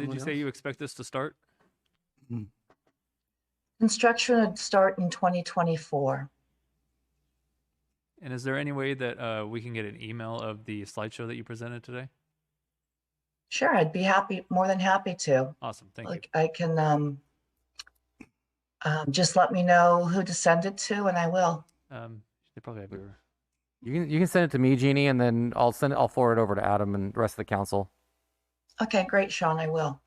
Did Someone you say else? you expect this to start? Construction would start in 2024. And is there any way that uh, we can get an email of the slideshow that you presented today? Sure, I'd be happy, more than happy to. Awesome, thank you. Like, I can, um, um, just let me know who to send it to and I will. Um, they probably have your. You can you can send it to me, Jeannie, and then I'll send it. I'll forward it over to Adam and the rest of the council. Okay, great, Sean, I will.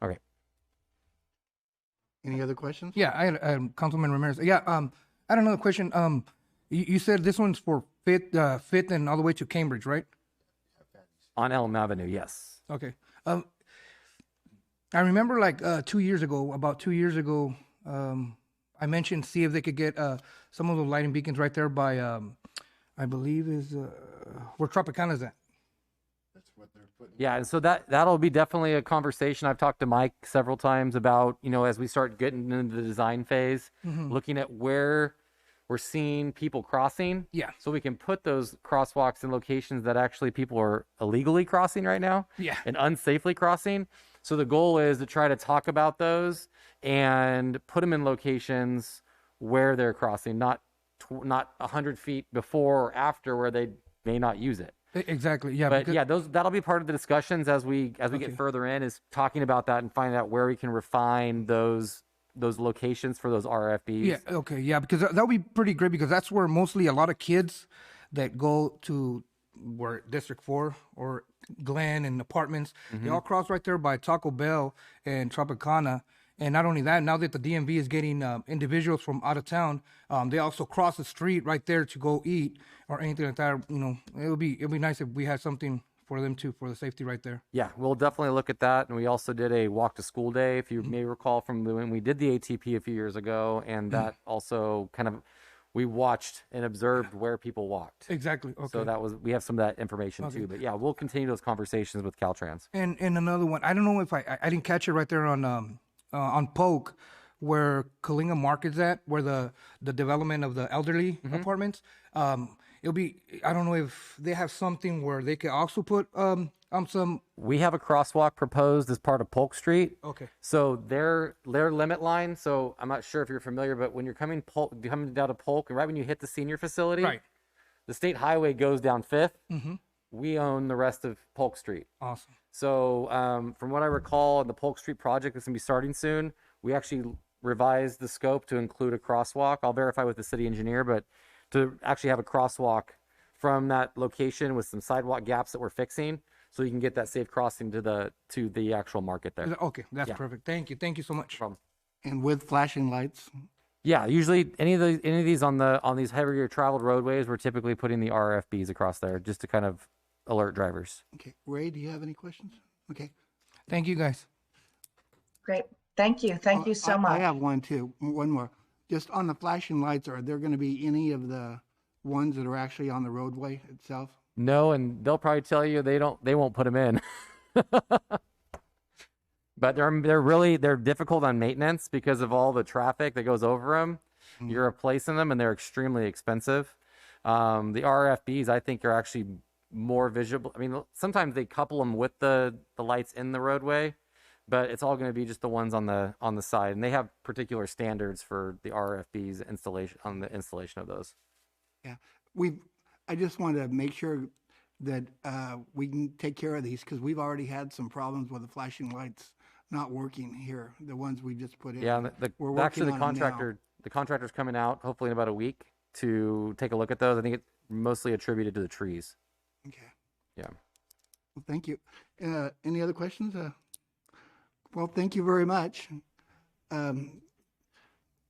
Any other questions? Yeah, I had um, Councilman Ramirez. Yeah, um, I had another question. Um, you, you said this one's for fifth, uh, fifth, and all the way to Cambridge, right? On Elm Avenue, yes. Okay. Um, I remember like uh, two years ago, about two years ago, um, I mentioned see if they could get uh, some of the lighting beacons right there by, um, I believe is uh, where Tropicana's at. Yeah, and so that that'll be definitely a conversation. I've talked to Mike several times about you know as we start getting into the design phase, looking at where we're seeing people crossing. Yeah. So we can put those crosswalks in locations that actually people are illegally crossing right now. Yeah. and unsafely crossing. So the goal is to try to talk about those and put them in locations where they're crossing, not tw- not hundred feet before or after where they may not use it. E- Exactly. Yeah. But because- yeah, those that'll be part of the discussions as we as we Okay. get further in is talking about that and finding out where we can refine those those locations for those RFBs. Yeah. Okay. Yeah, because that would be pretty great because that's where mostly a lot of kids that go to where District Four or Glen and apartments, they all cross right there by Taco Bell and Tropicana. And not only that, now that the DMV is getting um, individuals from out of town, um, they also cross the street right there to go eat or anything like that. You know, it would be it would be nice if we had something for them too for the safety right there. Yeah, we'll definitely look at that. And we also did a walk to school day, if you Mm-hmm. may recall from the- when we did the ATP a few years ago. And Mm-hmm. that also kind of, we watched and observed where people walked. Exactly. Okay. So that was, we have some of that information Okay. too. But yeah, we'll continue those conversations with Caltrans. And and another one, I don't know if I I- I didn't catch it right there on um uh, on Polk, where Kalinga Market's at, where the the development of the elderly apartments. Um, it'll be I don't know if they have something where they could also put um um some We have a crosswalk proposed as part of Polk Street. okay So their their limit line. So I'm not sure if you're familiar, but when you're coming Polk, coming down to Polk, and right when you hit the senior facility, right Mm-hmm. the state highway goes down 5th We own the rest of Polk Street. awesome So, um, from what I recall, in the Polk Street project that's going to be starting soon, we actually revised the scope to include a crosswalk. I'll verify with the city engineer, but to actually have a crosswalk from that location with some sidewalk gaps that we're fixing, so you can get that safe crossing to the to the actual market there. okay that's perfect thank you thank you so much And with flashing lights, Yeah, usually any of the any of these on the on these heavier traveled roadways, we're typically putting the RFBs across there just to kind of alert drivers. okay. Ray, do you have any questions? Okay. thank you guys Great, thank you, thank Uh, you I- so much. I have one too, one more. Just on the flashing lights, are there gonna be any of the ones that are actually on the roadway itself? No, and they'll probably tell you they don't they won't put them in. but they're they're really they're difficult on maintenance because of all the traffic that goes over them. You're replacing them and they're extremely expensive. Um, the RFBs I think are actually more visible. I mean, sometimes they couple them with the the lights in the roadway, but it's all going to be just the ones on the on the side and they have particular standards for the RFBs installation on the installation of those. Yeah, we've, I just want to make sure that uh, we can take care of these because we've already had some problems with the flashing lights not working here, the ones we just put in. Yeah, and the, We're the actually the working on 'em now. contractor, the contractor's coming out hopefully in about a week to take a look at those. I think it's mostly attributed to the trees. Okay, Yeah. well, thank you. Uh, Any other questions? Uh, Well, thank you very much. Um,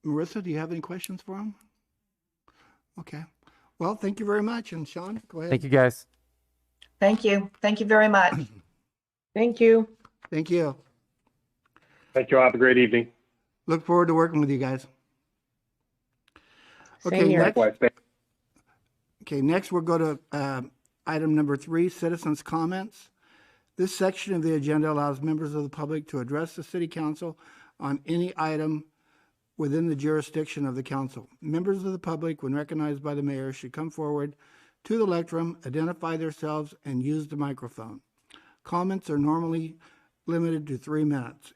Marissa, do you have any questions for him? Okay, well, thank you very much, and Sean, go ahead. Thank you guys. Thank you, thank you very much. Thank you. Thank you. Thank you. all. Have a great evening. Look forward to working with you guys. Okay, Same here. next- Likewise. Thank- Okay, next we'll go to uh, item number three, citizens' comments. This section of the agenda allows members of the public to address the city council on any item within the jurisdiction of the council. Members of the public, when recognized by the mayor, should come forward to the lectern, identify themselves, and use the microphone. Comments are normally limited to three minutes.